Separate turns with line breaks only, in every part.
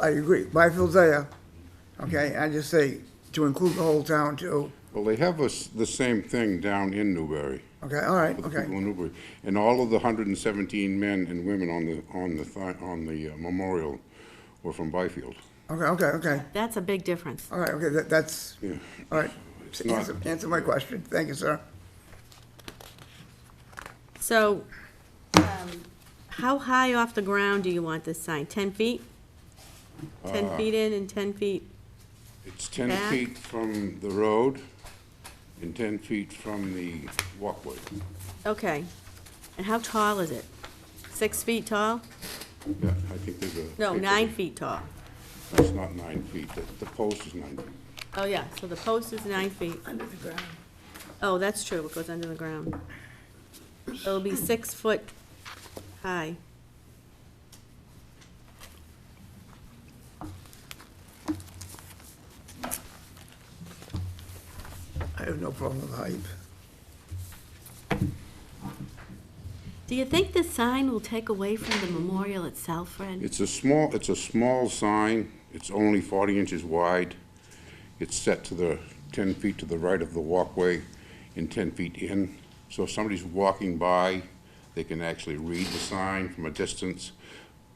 I agree, Byfield's there, okay, I just say to include the whole town too,
Well, they have us, the same thing down in Newbury.
okay, all right,
with the people
okay,
in Newbury. And all of the hundred and seventeen men and women on the, on the, thi- on the uh, memorial were from Byfield.
okay, okay, okay,
That's a big difference.
all right, okay, that, that's,
Yeah.
all right.
It's not-
Answer, answer my question, thank you, sir.
So, um, how high off the ground do you want this sign? 10 feet? 10 feet in and 10 feet?
It's ten
Back.
feet from the road and ten feet from the walkway.
Okay. And how tall is it? Six feet tall?
Yeah, I think there's a.
No, nine feet tall.
It's not nine feet, the, the post is nine feet.
Oh, yeah, so the post is nine feet. Under the ground. Oh, that's true, it goes under the ground. It'll be six foot high.
I have no problem with height.
Do you think this sign will take away from the memorial itself, Fred?
It's a small, it's a small sign, it's only 40 inches wide. It's set to the 10 feet to the right of the walkway and 10 feet in. So if somebody's walking by, they can actually read the sign from a distance.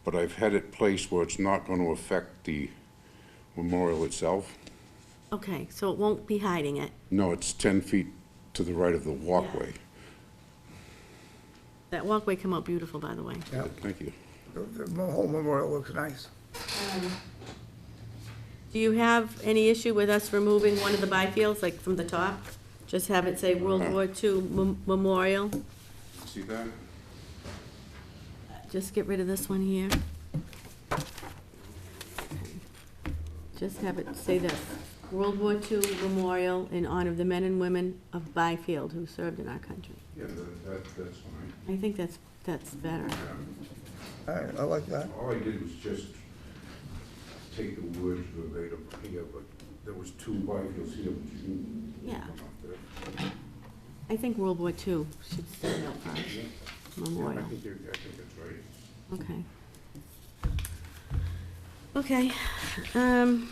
But I've had it placed where it's not going to affect the memorial itself.
Okay, so it won't be hiding it.
No, it's 10 feet to the right of the walkway.
That walkway come out beautiful, by the way.
Yeah.
Thank you.
The the whole memorial looks nice.
Do you have any issue with us removing one of the byfields, like from the top? Just have it say World War II Mem- Memorial?
See that?
Just get rid of this one here. Just have it say this, World War II Memorial in honor of the men and women of Byfield who served in our country.
Yeah, that, that's fine.
I think that's, that's better.
All right, I like that.
All I did was just take the words verbatim here, but there was two Byfields here. but you can-
Yeah. I think World War II should stand out for our
I
memorial.
think you're, I think that's right.
Okay. Okay, um.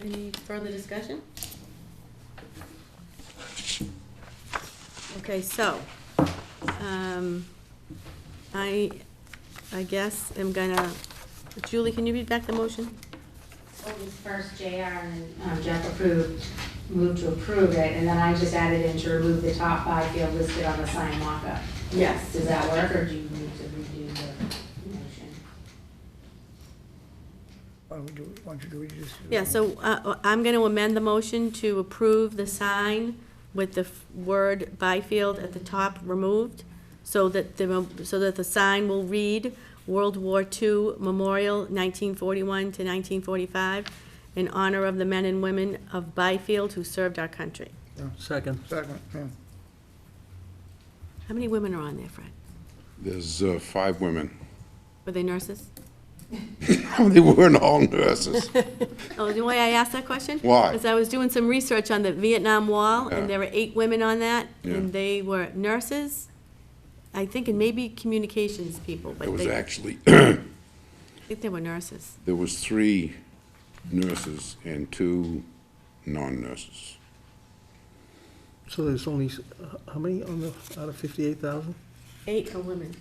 Any further discussion? Okay, so, um, I, I guess I'm gonna, Julie, can you read back the motion?
What was first JR and um, Jeff approved, moved to approve it, and then I just added in to remove the top five field listed on the sign mock-up. Yes. Does that work, or do you need to redo the motion?
Why don't we do, why don't you do, it? You just. do it.
Yeah, so uh, I'm going to amend the motion to approve the sign with the f- word Byfield at the top removed, so that the, mem- so that the sign will read World War II Memorial 1941 to 1945, in honor of the men and women of Byfield who served our country.
Second.
Second, yeah.
How many women are on there, Fred?
There's uh, five women.
Were they nurses?
They weren't all nurses.
Oh, the way I asked that question?
Why?
Because I was doing some research on the Vietnam Wall,
Yeah.
and there were eight women on that,
Yeah.
and they were nurses, I think, and maybe communications people,
There
but
was
they, I
actually,
think they were nurses.
there was three nurses and two non-nurses.
So there's only, s- h- how many on the, out of 58,000?
Eight are women,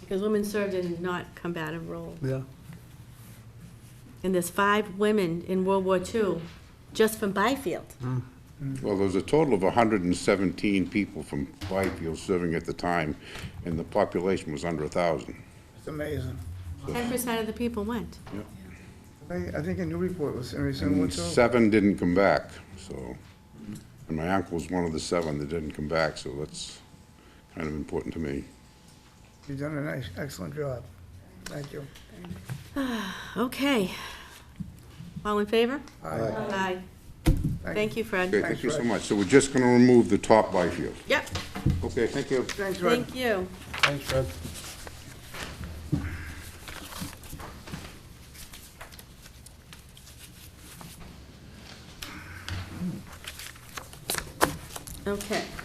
because women served in not combative roles.
Yeah.
And there's five women in World War II, just from Byfield.
Well, there was a total of 117 people from Byfield serving at the time, and the population was under 1,000.
It's amazing.
Ten percent of the people went.
I, I think a new report was, very similar
And
to.
seven didn't come back, so, and my uncle was one of the seven that didn't come back, so that's kind of important to me.
You've done a nice, excellent job. Thank you.
Okay. All in favor?
Aye.
Aye. Thank
Okay,
you, Fred.
thank you so much. So we're just gonna remove the top Byfield.
Yep,
Okay, thank you.
Thanks, Fred.
thank you.
Thanks, Fred.
Okay.